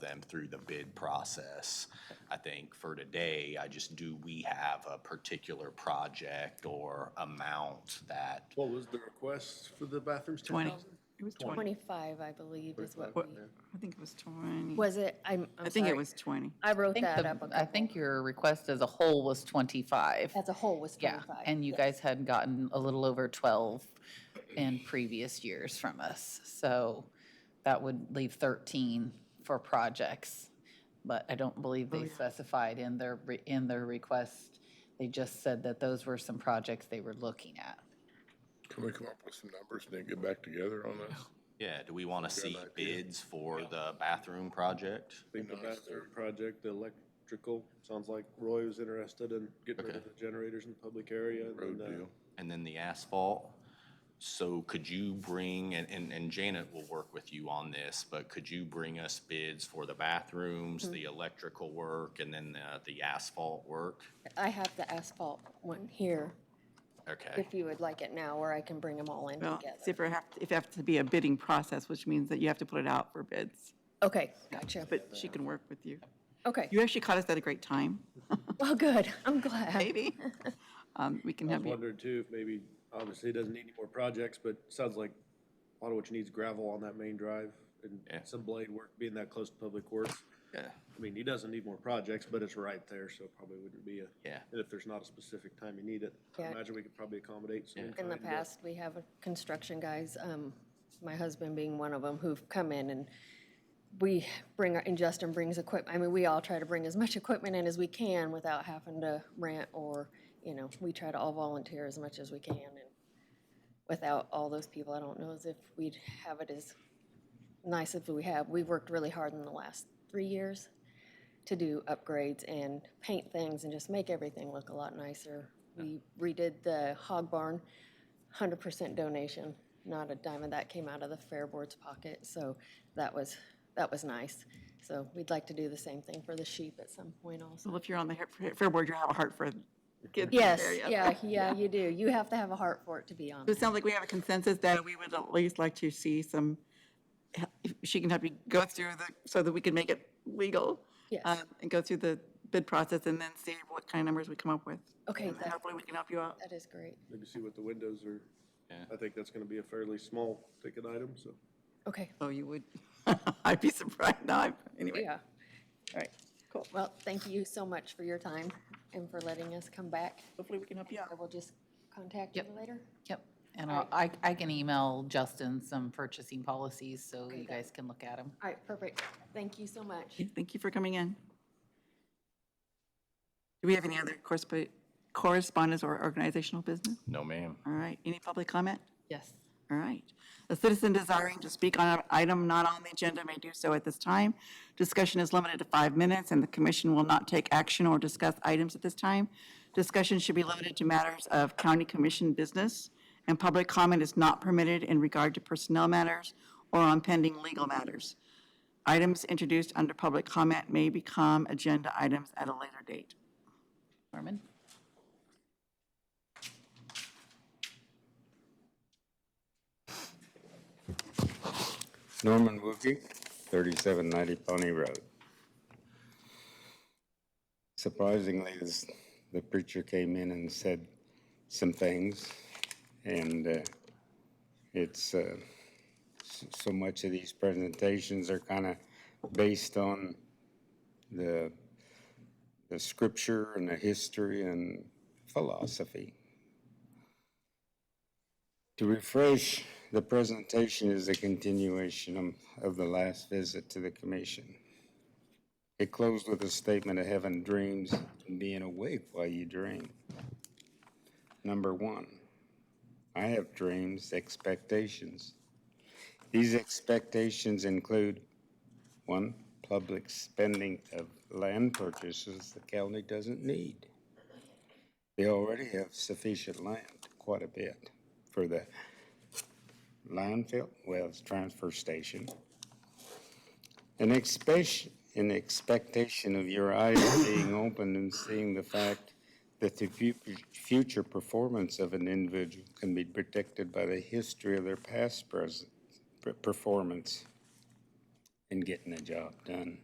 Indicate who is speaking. Speaker 1: them through the bid process. I think for today, I just, do we have a particular project or amount that
Speaker 2: What was the request for the bathrooms?
Speaker 3: 20.
Speaker 2: 10,000?
Speaker 3: It was 20.
Speaker 4: 25, I believe, is what
Speaker 3: What-
Speaker 4: we,
Speaker 3: I think it was 20.
Speaker 4: was it, I'm, I'm
Speaker 3: I think it
Speaker 4: sorry.
Speaker 3: was 20.
Speaker 4: I wrote
Speaker 5: think
Speaker 4: that
Speaker 5: the-
Speaker 4: up. a
Speaker 5: I
Speaker 4: couple-
Speaker 5: think your request as a whole was 25.
Speaker 4: As a whole was
Speaker 5: Yeah,
Speaker 4: 25.
Speaker 5: and you guys had gotten a little over 12 in previous years from us. So that would leave 13 for projects. But I don't believe they specified in their, re- in their request. They just said that those were some projects they were looking at.
Speaker 2: Can we come up with some numbers and then get back together on this?
Speaker 1: Yeah, do we want to see
Speaker 2: idea.
Speaker 1: bids for the bathroom project?
Speaker 6: I think the bathroom project, the electrical, sounds like Roy was interested in getting rid of the generators in the public area. and then,
Speaker 2: Road
Speaker 6: uh,
Speaker 2: deal.
Speaker 1: And then the asphalt? So could you bring, and, and, and Janet will work with you on this, but could you bring us bids for the
Speaker 4: Mm-hmm.
Speaker 1: bathrooms, the electrical work, and then the, the asphalt work?
Speaker 4: I have the asphalt one here,
Speaker 1: Okay,
Speaker 4: if you would like it now, or I can bring them all in
Speaker 3: Well, see
Speaker 4: together.
Speaker 3: if it have, if it have to be a bidding process, which means that you have to put it out for bids.
Speaker 4: Okay, gotcha.
Speaker 3: But she can work with you.
Speaker 4: Okay,
Speaker 3: You actually caught us at a great time,
Speaker 4: well, good, I'm glad.
Speaker 3: maybe. Um, We can
Speaker 6: I was
Speaker 3: have you,
Speaker 6: wondering too, if maybe, obviously, it doesn't need any more projects, but it sounds like a lot of what you need is gravel on that main drive and
Speaker 1: Yeah.
Speaker 6: some blade work, being that close to public works.
Speaker 1: Yeah.
Speaker 6: I mean, he doesn't need more projects, but it's right there, so it probably wouldn't be a.
Speaker 1: Yeah.
Speaker 6: And if there's not a specific time you need it, I
Speaker 4: Yeah.
Speaker 6: imagine we could probably accommodate some.
Speaker 4: In the
Speaker 6: kind, but-
Speaker 4: past, we have construction guys, um, my husband being one of them, who've come in and we bring, our- and Justin brings equip, I mean, we all try to bring as much equipment in as we can without having to rent or, you know, we try to all volunteer as much as we can. And Without all those people, I don't know as if we'd have it as nice as we have. We've worked really hard in the last three years to do upgrades and paint things and just make everything look a lot nicer. We redid the hog barn, hundred percent donation, not a dime of that came out of the fair board's pocket, so that was, that was nice. So we'd like to do the same thing for the sheep at some point also.
Speaker 3: well, if you're on the Har- Fair Board, you have a heart for kids. in the
Speaker 4: Yes,
Speaker 3: area.
Speaker 4: yeah, yeah, you do. You have to have a heart for it to be on.
Speaker 3: So It sounds like we have a consensus that we would at least like to see some, if she can help you go through the, so that we can make it legal.
Speaker 4: Yes.
Speaker 3: um, And go through the bid process and then see what kind of numbers we come up with.
Speaker 4: Okay,
Speaker 3: And
Speaker 4: that-
Speaker 3: hopefully we can help you out.
Speaker 4: That is great.
Speaker 6: Maybe see what the windows are.
Speaker 1: Yeah.
Speaker 6: I think that's gonna be a fairly small ticket item, so.
Speaker 4: Okay,
Speaker 3: Oh, you would. I'd be surprised. No, I- anyway.
Speaker 4: yeah.
Speaker 3: All right, cool.
Speaker 4: Well, thank you so much for your time and for letting us come back.
Speaker 3: Hopefully we can help you
Speaker 4: I
Speaker 3: out.
Speaker 4: will just contact you
Speaker 5: Yep.
Speaker 4: later.
Speaker 5: Yep, and I'll- I, I can email Justin some purchasing policies so you guys can look at them.
Speaker 4: All right, perfect. Thank you so much.
Speaker 3: Okay, Thank you for coming in. Do we have any other corresp- correspondence or organizational business?
Speaker 1: no ma'am.
Speaker 3: All right, any public comment?
Speaker 5: Yes.
Speaker 3: All right. A citizen desiring to speak on an item not on the agenda may do so at this time. Discussion is limited to five minutes, and the commission will not take action or discuss items at this time. Discussion should be limited to matters of county commission business, and public comment is not permitted in regard to personnel matters or on pending legal matters. Items introduced under public comment may become agenda items at a later date.
Speaker 5: Norman?
Speaker 7: Norman Wookie, 3790 Pony Road. Surprisingly, this- the preacher came in and said some things, and uh, it's, uh, s- so much of these presentations are kind of based on the the scripture and the history and philosophy. To refresh, the presentation is a continuation um, of the last visit to the commission. It closed with a statement of having dreams and being awake while you dream. Number one, I have dreams, expectations. These expectations include, one, public spending of land purchases the county doesn't need. They already have sufficient land, quite a bit, for the landfill, well, it's transfer station. An expectation, an expectation of your eyes being open and seeing the fact that the fu- future performance of an individual can be protected by the history of their past present, per- performance in getting the job done.